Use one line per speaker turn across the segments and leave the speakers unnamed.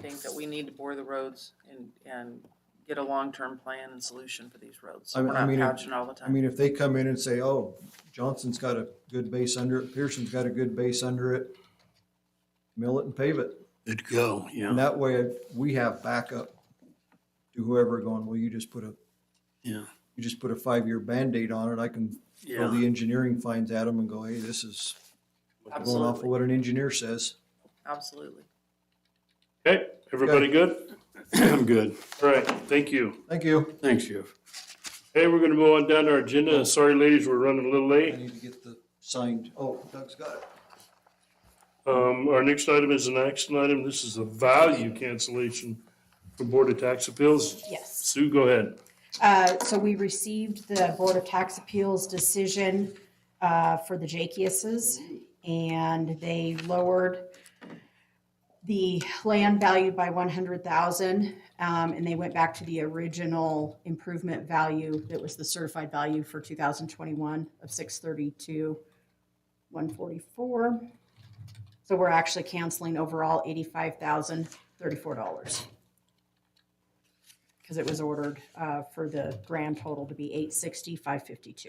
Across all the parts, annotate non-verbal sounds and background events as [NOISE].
think that we need to bore the roads and, and get a long-term plan and solution for these roads.
I
We're
mean- I
not
mean,
couching all the
I
time.
mean, if they come in and say, oh, Johnson's got a good base under it, Pearson's got a good base under it, mill it and pave it.
It'd go,
And
yeah,
that way, we have backup to whoever going, well, you just put a,
yeah,
you just put a five-year Band-Aid on it. I can throw
yeah,
the engineering fines at them and go, hey, this is going off of
Absolutely,
what an engineer says.
absolutely.
Okay, everybody good?
I'm good.
All right, thank you.
Thank you.
Thanks, Jeff.
Hey, we're gonna move on down to our agenda. Sorry, ladies, we're running a little
I
late.
need to get the signed, oh, Doug's got it.
Um, our next item is an action item. This is a value cancellation from Board of Tax Appeals.
Yes.
Sue, go ahead.
Uh, So we received the Board of Tax Appeals decision uh, for the Jakiases, and they lowered the land value by 100,000, um, and they went back to the original improvement value that was the certified value for 2021 of 632, 144. So we're actually canceling overall $85,034 because it was ordered uh, for the grand total to be eight sixty, five
[COUGHS]
fifty-two.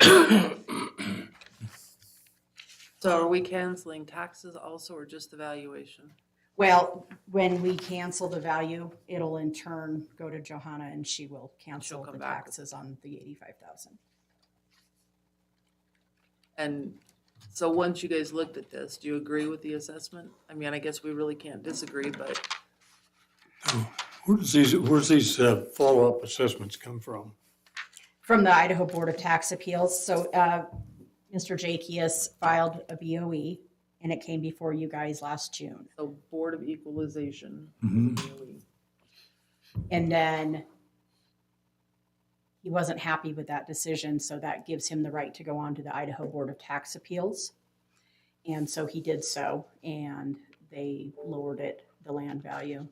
So are we canceling taxes also or just the valuation?
Well, when we cancel the value, it'll in turn go to Johanna and she will cancel
come
the
back.
taxes on the eighty-five thousand.
And so once you guys looked at this, do you agree with the assessment? I mean, I guess we really can't disagree, but
Where does these, where's these uh, follow-up assessments come from?
From the Idaho Board of Tax Appeals, so uh, Mr. Jakias filed a BOE and it came before you guys last June.
the Board of Equalization.
Mhm.
Mm-hmm.
really-
And then he wasn't happy with that decision, so that gives him the right to go on to the Idaho Board of Tax Appeals. And so he did so, and they lowered it, the land value.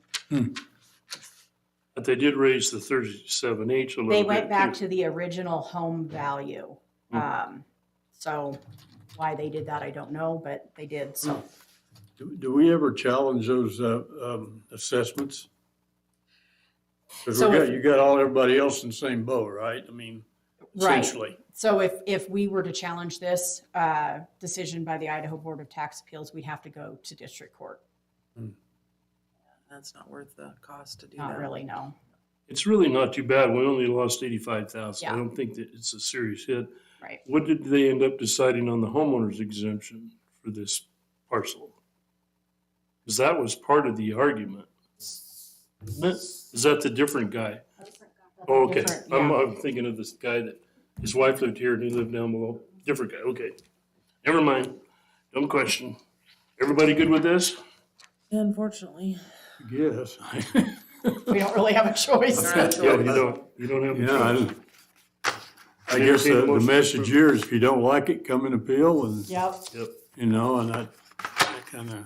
But they did raise the thirty-seven H a little
They
bit.
went back
too.
to the original home value. Um, So why they did that, I don't know, but they did, so.
Do do we ever challenge those uh, um, assessments? Because
So
we
if-
got, you got all, everybody else in the same boat, right? I mean,
Right.
essentially.
So if, if we were to challenge this uh, decision by the Idaho Board of Tax Appeals, we'd have to go to district court.
That's not worth the cost to do that.
Not really, no.
It's really not too bad. We only lost eighty-five thousand. I
Yeah.
don't think that it's a serious hit.
Right.
What did they end up deciding on the homeowner's exemption for this parcel? Because that was part of the argument. Isn't it? Is that the different guy? Oh, okay.
Different,
I'm,
yeah.
I'm thinking of this guy that, his wife lived here and he lived down below. Different guy, okay. Never mind. Dumb question. Everybody good with this?
Unfortunately.
Yes.
[LAUGHS] We don't really have a choice.
All right,
Yeah,
Joel.
you don't, you don't have. a
Yeah,
choice.
I- I guess the the
Motion
message
approved.
here is if you don't like it, come and appeal and,
Yep.
Yep.
you know, and I kind of,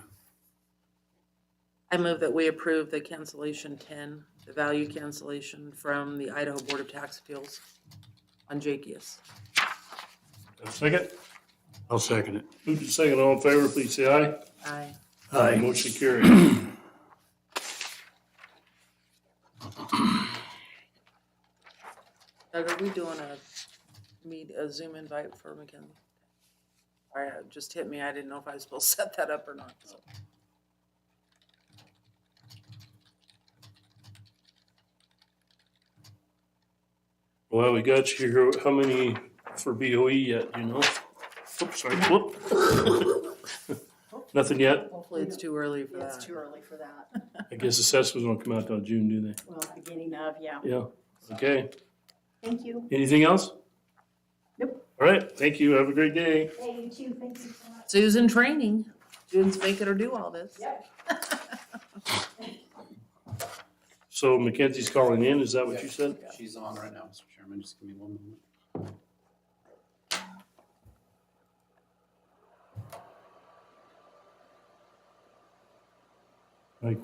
I move that we approve the cancellation ten, the value cancellation from the Idaho Board of Tax Appeals on Jakias.
Second,
I'll second it.
move to second, all in favor, please say aye.
Aye.
Motion carried.
Doug, are we doing a meet, a Zoom invite for McKinley? All right, it just hit me. I didn't know if I was supposed to set that up or not. so.
Well, we got you here, how many for BOE yet, you know? Oops, sorry, whoop. [LAUGHS] Nothing yet?
Hopefully, it's too early for
It's
that.
too early for that.
I guess assessments don't come out till June, do they?
Well, beginning of, yeah.
Yeah, okay.
Thank you.
Anything else?
Nope.
All right, thank you, have a great day.
Hey, you too. Thank you so much.
Susan training, students make it or do all this.
Yep.
So Mackenzie's calling in, is that what you said?
She's on right now, Mr. Chairman, just give me one moment.
Like,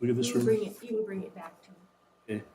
look at this
You can
room.
bring it, you can bring it back to me.
Okay.